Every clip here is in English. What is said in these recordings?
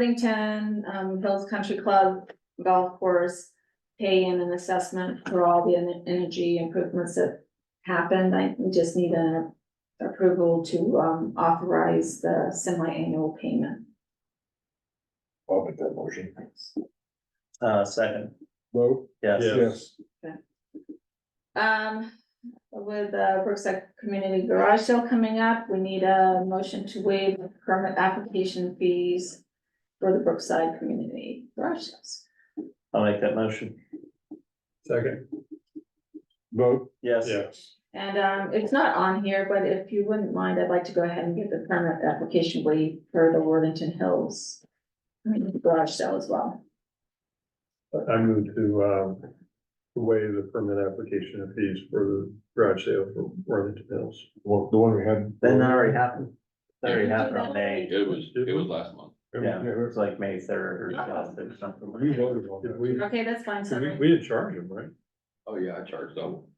Worthington, um, Hills Country Club Golf Course. Pay in an assessment for all the en- energy improvements that happened, I we just need an approval to, um, authorize the semi-annual payment. I'll make that motion. Uh, second, Vote? yes. Um, with the Brookside Community Garage Sale coming up, we need a motion to waive the permit application fees for the Brookside Community Garage Sales. I'll make that motion. Second. Vote? Yes. And um, it's not on here, but if you wouldn't mind, I'd like to go ahead and get the permit application waived for the Worthington Hills Community Garage Sale as well. I move to, um, waive the permit application of fees for the garage sale for Worthington Hills. Well, the one we had. Then that already happened. That already happened on May, It was, it was last month. yeah, it that's- was like May third or something. We voted on Did that. we, Okay, that's fine, did we, sorry. we didn't charge him, right? Oh, yeah, I charged double.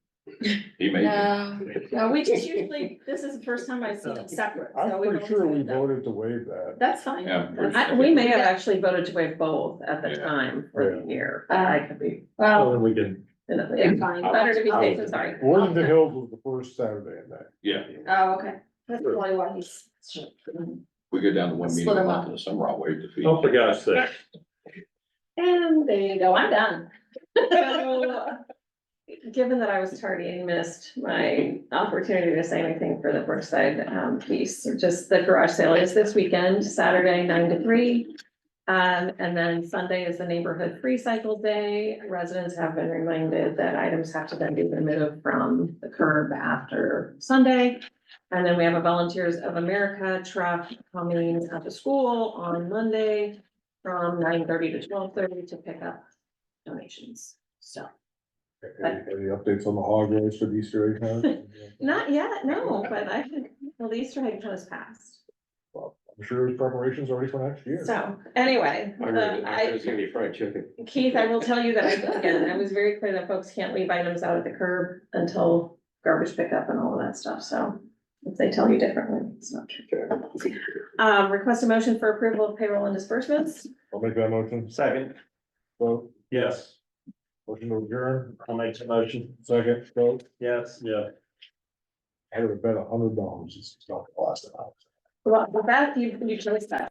He made it. No, no, we just usually, this is the first time I've seen it separate. so I'm we've pretty always sure we done that. voted to waive that. That's fine. Yeah, we're- I, we may have actually voted to waive both at the Yeah. time for the year, but I could be. So uh, Well, Oh. then we can, yeah, Better fine. to be safe than sorry. Oh, Worthington Hills was the first Saturday in that. Yeah, Oh, okay. That's probably why he's. we go down to one meeting Split a 'em month in the summer, I'll waive the fee. oh, for God's sake. And there you go, I'm done. So, Given that I was tardy and missed my opportunity to say anything for the Brookside um piece, or just the garage sale is this weekend, Saturday nine to three. Um, and then Sunday is the neighborhood free cycle day. Residents have been reminded that items have to then be removed from the curb after Sunday. And then we have a Volunteers of America truck coming out to school on Monday from nine thirty to twelve thirty to pick up donations, so. Any any updates on the hog race for Easter egg hunt? Not yet, no, but I should, well, the Easter egg hunt is past. I'm sure there's preparations already for next year. So anyway, the- Uh, I, gonna be fried chicken. Keith, I will tell you that I, again, I was very clear that folks can't leave items out at the curb until garbage pickup and all of that stuff, so. If they tell you differently, it's not true. Um, request a motion for approval of payroll and disbursements. I'll make that motion. Second, Vote? yes, Motion to adjourn. I'll make the motion, Second. Vote? yes. Yeah. I would have bet a hundred dollars. It's not the last time. Well, Beth, you, you chose that.